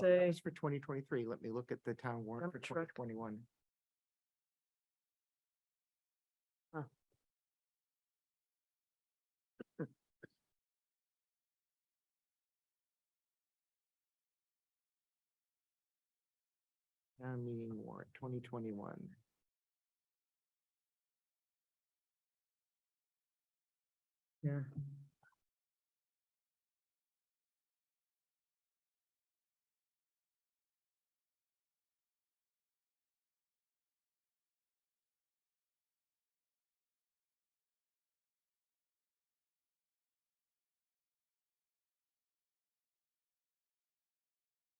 say, That's for twenty twenty-three. Let me look at the town warrant Dump for twenty truck. twenty-one. Town meeting warrant, twenty twenty-one. yeah,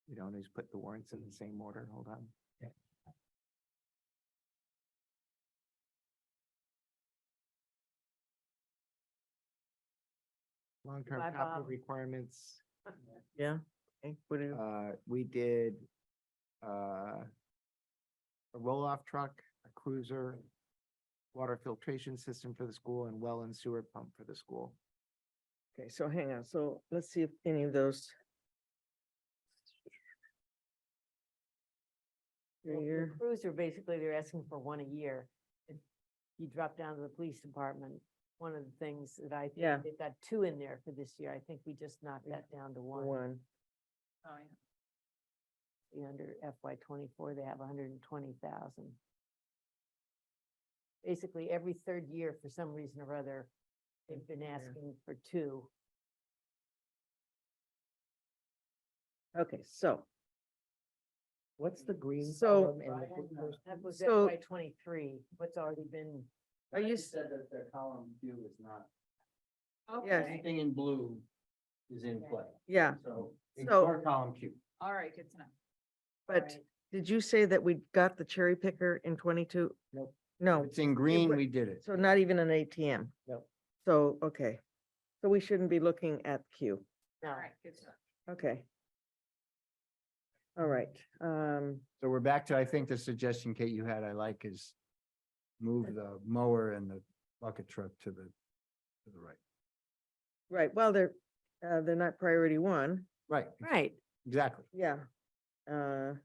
You don't always put the warrants in the same order. Hold on. Long-term Bye, capital Bob. requirements. yeah. What do- Uh, we did, uh, a roll-off truck, a cruiser, water filtration system for the school and well and sewer pump for the school. Okay, so hang on, so let's see if any of those. Well, the Here, Cruiser, basically, they're asking for one a year. If You drop down to the police department, one of the things that I Yeah. think, they've got two in there for this year. I think we just knocked Yeah. that down to one. one, The Under FY twenty-four, they have hundred and twenty thousand. Basically, every third year, for some reason or other, they've been Yeah. asking for two. okay, so, What's the green So- column and the blue column? That was So- FY twenty-three, what's already been, are you, s- that their column view is not, yes, anything in blue is in play, yeah, so So- ignore column Q. All right, good to know. but did you say that we got the cherry picker in twenty-two? Nope. No, It's in green, but- we did it. so not even an ATM? Nope. So, okay, so we shouldn't be looking at Q, no, All right, good to know. okay. All right, um, So we're back to, I think the suggestion Kate you had, I like is move the mower and the bucket truck to the, to the right. right, well, they're, uh, they're not priority one, Right, right. exactly. yeah. Uh.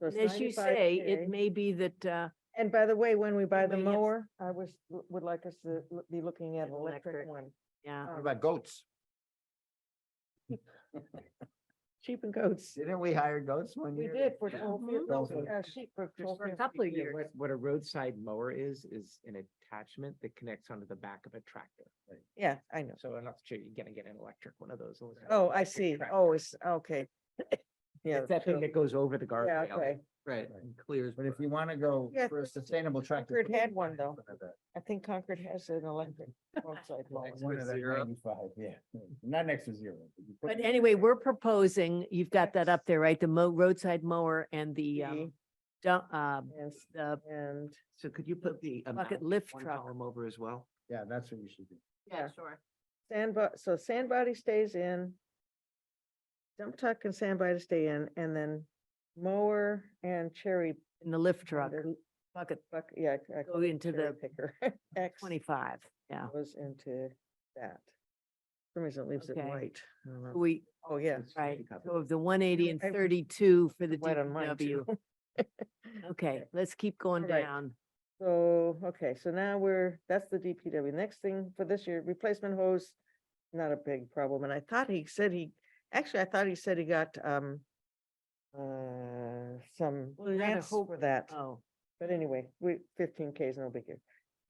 so it's And As you say, it 95K. may be that, uh, And by the way, when we buy the may have- mower, I wish, would like us to l- be looking at An an electric electric. uh, one, Um, yeah. Uh, What about goats? sheep and goats. Didn't we hire goats one We year? did for Yeah. twelve Mhm. fifty, uh, sheep for Just twelve for a fifty. couple of Yeah, years. What, what a roadside mower is, is an attachment that connects onto the back of a tractor. Yeah, I know. So I'm not sure you're gonna get an electric one of those. unless you have Oh, an I electric see. tractor. Oh, it's, okay. Yeah. It's that thing true. that goes over the Yeah, guardrail. okay. Right. And clears. But if you want to go Yeah, for a sustainable tractor. Concord put had one, though. one of the- I think Concord has an electric roadside mower. Next One to of the zero. 95, yeah, not next to zero. you put But it- anyway, we're proposing, you've got that up there, right? The mo- roadside mower and the, Mm-hmm. um, dump, uh, And, s- the and So could you put the amount bucket lift one truck. column over as well? Yeah, that's what you should do. Yeah. sure. sand, bo- so sand body stays in. Dump truck and sand body stay in, and then mower and cherry. And the lift truck, under- bucket Buck, yeah. I- I Go call it into cherry the Picker. X twenty-five, yeah. goes into that. For some reason, it leaves it Okay. white. I don't know. We, Oh, yeah. It's right, pretty covered. so of the one eighty and I- thirty-two for the White on mine DPW. too. Okay, let's keep going All right. down. So, okay, so now we're, that's the DPW. Next thing for this year, replacement hose, not a big problem. And I thought he said he, actually, I thought he said he got, um, uh, some Well, you gotta grants hope- for that, Oh, but anyway, we, fifteen K is no big deal.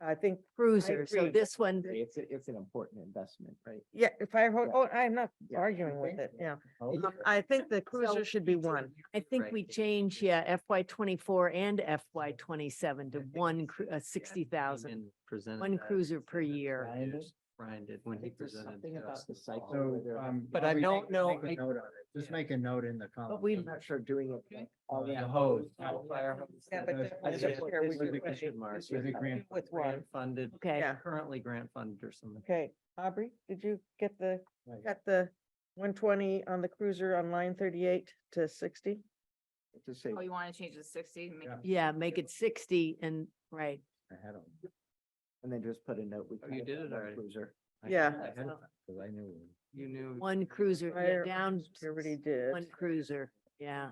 I think, cruiser, so agree. this one, It's, a- it's an important investment, right? yeah, if I, heard- Yeah. oh, I'm not Yeah. arguing with Okay. it, yeah. Oh, It- I think the So cruiser should be it's a- one. I think Right. we change, yeah, FY twenty-four and FY twenty-seven to I think one, it's- cru- uh, sixty thousand, Presented. one that cruiser per and year. Brian did? just- Brian did when he think there's presented. something to about us the this cycle fall. where So, they're- um. But I make- don't know, make a I- note on it. Just yeah. make a note in the column. But we- I'm not sure doing it. like Oh, all yeah, the hose. Yeah, Oh, fire yeah. hose. Yeah, but Those- that I was think this year, this we is a did- question mark. This was a grant. With one, Grant funded, Okay, Yeah. currently grant funded or something. okay. Aubrey, did you get the Right. Got the one twenty on the cruiser on line thirty-eight to sixty. To say, Oh, you want to change it to sixty? Make Yeah. it- yeah, make it sixty and, right, I had them. and then just put a note. we Oh, kind you of did got it one already. Cruiser. I Yeah. had them, Cause I knew. You knew. one cruiser, yeah, Fire down Everybody did. one cruiser. yeah.